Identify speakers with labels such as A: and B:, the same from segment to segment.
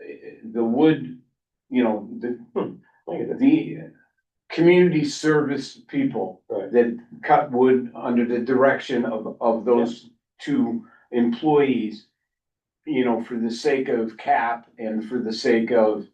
A: the wood, you know, the, hmm, the community service people
B: Right.
A: that cut wood under the direction of, of those two employees, you know, for the sake of cap and for the sake of,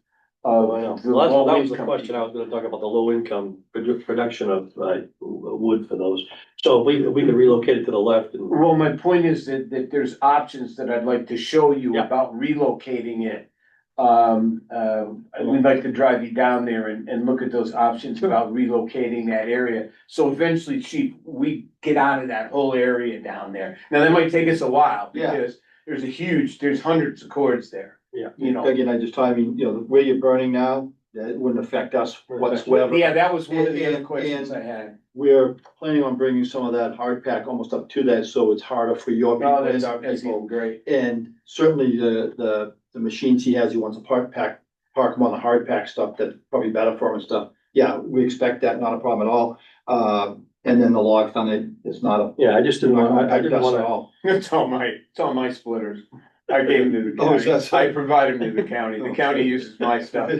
B: Well, I know.
A: of the
B: Well, that's-
A: low
B: that was the
A: income
B: question I was gonna talk about, the low income produ- production of, uh, wood for those. So if we, we can relocate it to the left and.
A: Well, my point is that, that there's options that I'd like to show you
B: Yeah.
A: about relocating it. Um, uh, we'd like to drive you down there and, and look at those options about relocating that area. So eventually, chief, we get out of that whole area down there. Now, that might take us a while
C: Yeah.
A: because there's a huge, there's hundreds of cords there.
B: Yeah.
A: You know,
C: Again, I just, I mean, you know, where you're burning now, that wouldn't affect us whatsoever.
A: yeah, that was one of the
C: And-
A: other questions I
C: and-
A: had.
C: We're planning on bringing some of that hard pack almost up to that, so it's harder for your people
A: No, Oh, that's,
C: and our
A: that's
C: people.
A: great.
C: And certainly the, the, the machines he has, he wants to park pack, park them on the hard pack stuff, that's probably better for him and stuff. Yeah, we expect that, not a problem at all. Uh, and then the log thunder is not a.
B: Yeah, I just didn't, want- I I didn't
C: At
B: wanna,
C: all.
A: It's on my, it's on my splitters. I gave them to the
C: Oh, is
A: county.
C: that so?
A: I provided them to the county. The county uses my stuff.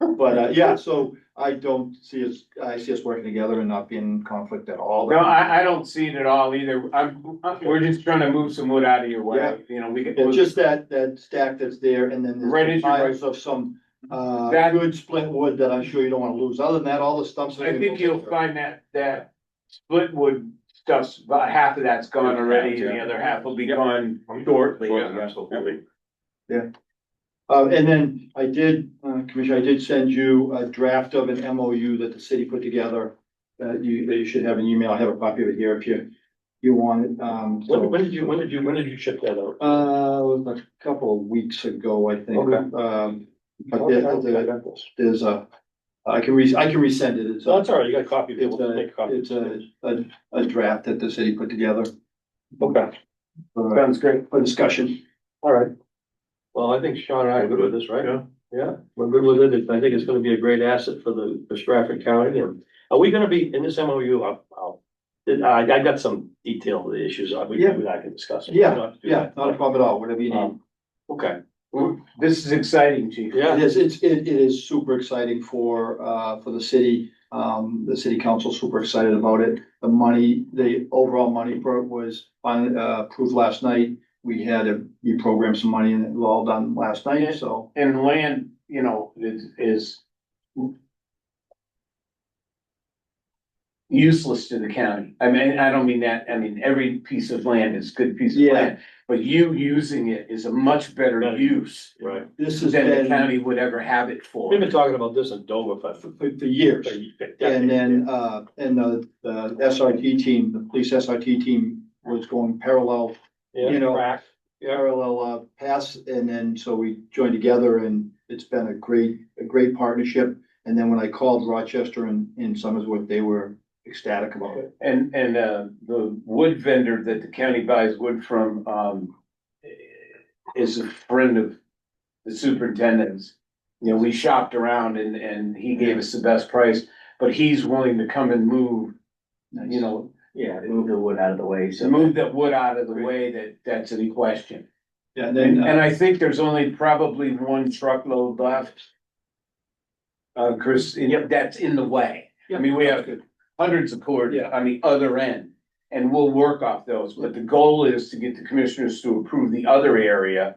C: But, uh, yeah, so I don't see us, I see us working together and not being in conflict at all.
A: No, I, I don't see it at all either. I'm, I'm- we're just trying to move some wood out of your way, you know, we could.
C: It's just that, that stack that's there and then
A: Right
C: there's
A: as you- right.
C: piles of some, uh,
A: That-
C: good split wood that I'm sure you don't wanna lose. Other than that, all the stumps. are
A: I think you'll
C: gonna go-
A: find that, that split wood stuff's, about half of that's gone already, and the other half will be gone shortly.
B: absolutely.
C: Uh, and then I did, uh, Commissioner, I did send you a draft of an MOU that the city put together. That you, that you should have an email. I have a copy of it here if you, you want it, um. so-
B: When, when did you, when did you, when did you ship that out?
C: Uh, it was a couple of weeks ago, I think.
B: Okay.
C: Um,
B: I
C: but
B: don't
C: there-
B: think I
C: there-
B: got this.
C: there's a, I can re, I can resend it. It's
B: No,
C: a-
B: it's all right, you got a copy,
C: It's
B: we'll just make a
C: a,
B: copy.
C: it's a, a, a draft that the city put together
B: Okay,
C: for,
A: Sounds great.
C: for discussion.
B: all right. Well, I think Sean and I are good with this, right? Yeah. we're good with it, I think it's gonna be a great asset for the, for Stratford County, and are we gonna be, in this MOU, I'll, I'll. I, I got some detailed issues, I, we,
C: Yeah.
B: we- I can discuss.
C: Yeah, Yeah, not a problem at all, whatever you need.
B: Um, Okay,
A: This is exciting, chief.
B: yeah,
C: It is, it's, it, it is super exciting for, uh, for the city. Um, the city council super excited about it. The money, the overall money for it was finally, uh, approved last night. We had to reprogram some money and it was all done last night, so.
A: And land, you know, is, is useless to the county. I mean, I don't mean that, I mean, every piece of land is good piece of
C: Yeah.
A: land, but you using it is a much better
B: Better.
A: use
B: right,
C: This has
A: than the
C: been
A: county would ever have it for.
B: we've been talking about this in Dover for.
C: for, for years. And then, uh, and the, the SRT team, the police SRT team was going parallel, you know,
B: Crack. Yeah.
C: parallel, uh, paths. And then, so we joined together and it's been a great, a great partnership. And then when I called Rochester and, and Somersworth, they were ecstatic about it.
A: And, and, uh, the wood vendor that the county buys wood from, um, is a friend of the superintendent's. You know, we shopped around and, and he gave us the best price, but he's willing to come and move, you know,
D: Yeah, move the wood out of the way,
A: to
D: so.
A: move that wood out of the way that, that's in question.
C: Yeah, and
A: And,
C: then,
A: and
C: uh,
A: I think there's only probably one truckload left. Uh, Chris, and that's in the way. I mean, we have hundreds of cords
C: Yeah.
A: on the other end. And we'll work off those, but the goal is to get the commissioners to approve the other area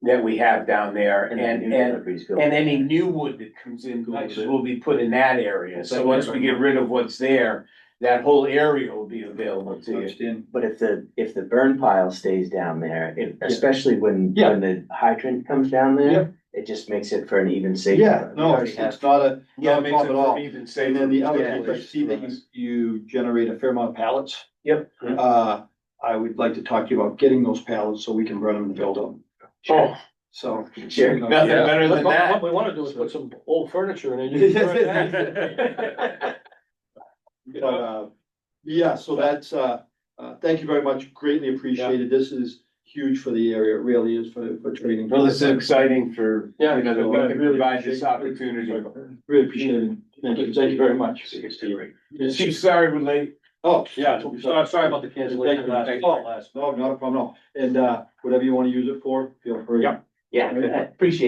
A: that we have down there and, and, and any new wood that comes in
B: Nice.
A: will be put in that area. So
B: Like
A: once
B: that.
A: we get rid of what's there, that whole area will be available to you.
C: understand.
D: But if the, if the burn pile stays down there, if,
C: Yeah.
D: especially when,
C: Yeah.
D: when the hydrant comes down
C: Yeah.
D: there, it just makes it for an even safer.
C: Yeah,
D: We
C: no,
D: already
C: it's
D: have-
C: it's not a,
A: Yeah,
C: Yeah,
A: it makes it
C: pop it off.
A: even safer.
C: and then the other,
D: Yeah.
C: thing, I see that you, you generate a fair amount of pallets.
A: Yep.
C: Uh, I would like to talk to you about getting those pallets so we can burn them and build them.
A: Oh,
C: So.
D: Sure.
C: you
A: nothing
C: know,
A: better
B: What
A: than that.
B: what we wanna do is put some old furniture in it.
C: But, uh, yeah, so that's, uh, uh, thank you very much, greatly appreciated. This is huge for the area, it really is for, for training.
A: Well, this is exciting for,
B: Yeah,
A: you know, that we
C: I
A: can
C: really
A: provide this
C: appreciate
A: opportunity.
C: Really appreciate it.
B: Thank you, thank you very much.
A: Chief, sorry we're late.
C: Oh,
B: Yeah, sorry, sorry about the
C: Thank
B: cancellation
C: you.
B: last,
C: Thank you.
B: oh, last.
C: No, not a problem, no. And, uh, whatever you wanna use it for, feel free.
B: Yeah.
D: Yeah, I appreciate